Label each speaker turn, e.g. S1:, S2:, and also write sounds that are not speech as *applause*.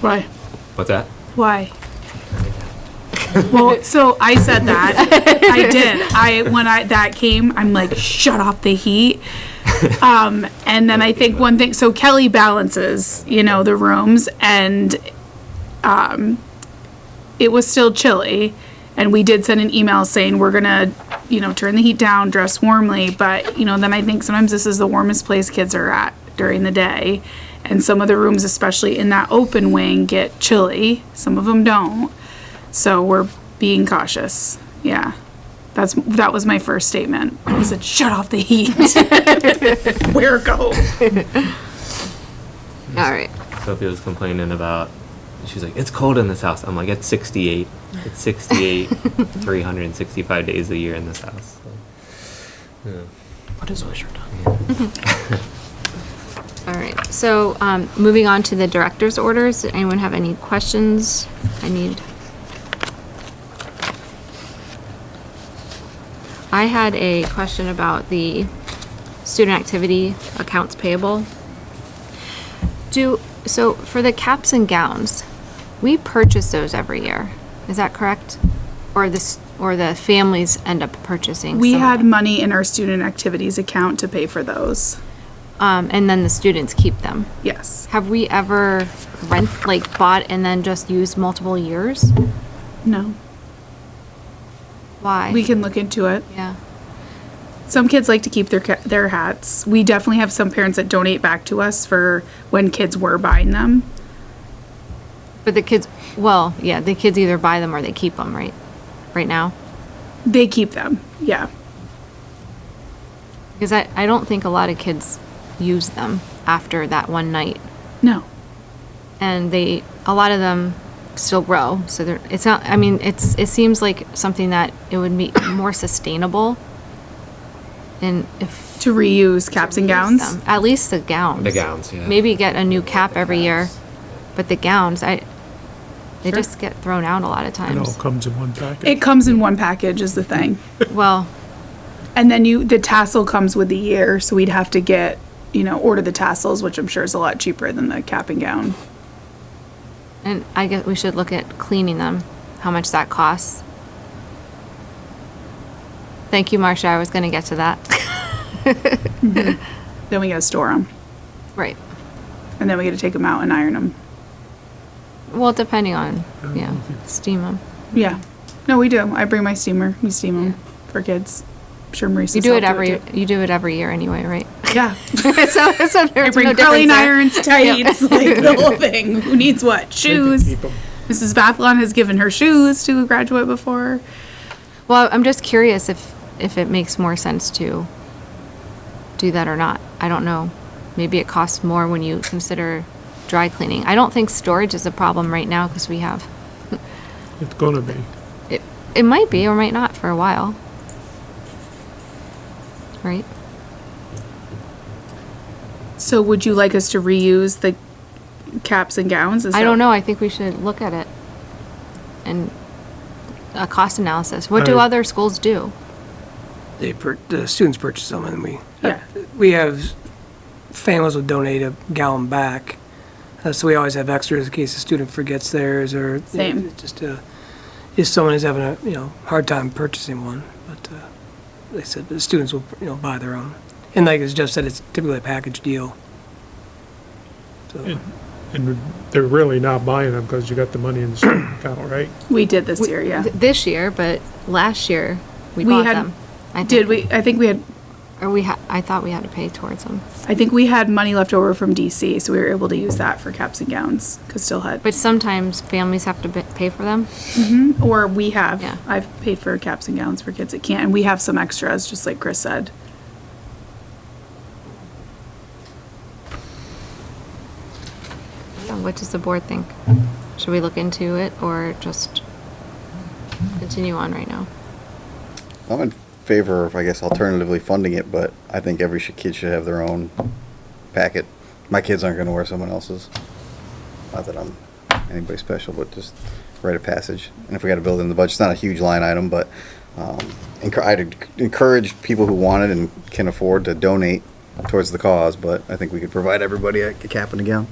S1: Why?
S2: What's that?
S1: Why? Well, so I said that. I did. I when I that came, I'm like, shut off the heat. Um, and then I think one thing. So Kelly balances, you know, the rooms, and um, it was still chilly. And we did send an email saying we're gonna, you know, turn the heat down, dress warmly. But you know, then I think sometimes this is the warmest place kids are at during the day, and some of the rooms, especially in that open wing, get chilly. Some of them don't. So we're being cautious. Yeah. That's that was my first statement. I said, "Shut off the heat." *laughs* Where go?
S3: All right.
S2: Sophia was complaining about. She's like, it's cold in this house. I'm like, it's 68. It's 68, 365 days a year in this house.
S4: What is Wisher done?
S3: All right. So, um, moving on to the director's orders. Did anyone have any questions? I need. I had a question about the student activity accounts payable. Do, so for the caps and gowns, we purchase those every year. Is that correct? Or this, or the families end up purchasing?
S1: We
S3: some of
S1: had
S3: them?
S1: money in our student activities account to pay for those.
S3: Um, and then the students keep them.
S1: Yes.
S3: Have we ever rent, like bought and then just used multiple years?
S1: No.
S3: Why?
S1: We can look into it.
S3: Yeah.
S1: Some kids like to keep their ca- their hats. We definitely have some parents that donate back to us for when kids were buying them.
S3: But the kids, well, yeah, the kids either buy them or they keep them, right? Right now?
S1: They keep them. Yeah.
S3: Because I, I don't think a lot of kids use them after that one night.
S1: No.
S3: And they, a lot of them still grow. So they're, it's not, I mean, it's, it seems like something that it would be more sustainable. And if.
S1: To reuse caps and
S3: reuse
S1: gowns.
S3: them. At least the gowns.
S2: The gowns, yeah.
S3: Maybe get a new cap every year, but the gowns, I, they
S1: Sure.
S3: just get thrown out a lot of
S5: It all
S3: times.
S5: comes in one package.
S1: It comes in one package is the
S3: *laughs*
S1: thing.
S3: Well,
S1: And then you, the tassel comes with the year, so we'd have to get, you know, order the tassels, which I'm sure is a lot cheaper than the cap and gown.
S3: and I guess we should look at cleaning them, how much that costs. Thank you, Marcia, I was gonna get to that. *laughs*
S1: Then we gotta store them,
S3: Right,
S1: and then we gotta take them out and iron them.
S3: well, depending on,
S5: don't
S3: yeah,
S5: know if you-
S3: steam them.
S1: Yeah. No, we do. I bring my steamer. We steam them for kids. I'm sure Marissa's
S3: You do it
S1: helped
S3: every,
S1: too.
S3: you do it every year anyway, right? *laughs*
S1: Yeah.
S3: So, so
S1: I
S3: there's no
S1: bring curling
S3: difference there. *laughs*
S1: irons, tights, like the whole thing. Who needs what? Shoes.
S5: Keep 'em.
S1: Mrs. Bathlon has given her shoes to a graduate before.
S3: Well, I'm just curious if, if it makes more sense to do that or not. I don't know. Maybe it costs more when you consider dry cleaning. I don't think storage is a problem right now because we have,
S5: It's gonna be.
S3: it, it might be or might not for a while. Right?
S1: So would you like us to reuse the caps and gowns? Is
S3: I
S1: that-
S3: don't know. I think we should look at it and a cost analysis. What do
S1: Uh,
S5: I-
S3: other schools do?
S6: they pur- the students purchase them, and we
S1: Yeah.
S6: we have families will donate a gallon back, uh, so we always have extras in case a student forgets theirs or
S1: Same.
S6: it's just uh, if someone is having a you know hard time purchasing one. But uh, they said the students will you know buy their own, and like as Jeff said, it's typically a package deal. So
S5: And they're really not buying them because you got the money in the student account, right?
S1: We did this year, yeah.
S3: Th- This year, but last year we
S1: We
S3: bought
S1: had-
S3: them. I
S1: Did
S3: think.
S1: we, I think we had,
S3: Or we ha- I thought we had to pay towards them.
S1: I think we had money left over from DC, so we were able to use that for caps and gowns, because still had,
S3: But sometimes families have to b- pay for them.
S1: or we have.
S3: Yeah.
S1: I've paid for caps and gowns for kids that can't, and we have some extras, just like Chris said.
S3: Yeah, What does the board think? Should we look into it or just continue on right now?
S7: I'm in favor of, I guess, alternatively funding it, but I think every sh- kid should have their own packet. My kids aren't going to wear someone else's. Not that I'm anybody special, but just rite of passage. And if we got to build it in the budget, it's not a huge line item, but um, encour- I'd enc- encourage people who want it and can afford to donate towards the cause. But I think we could provide everybody a a cap and a gown.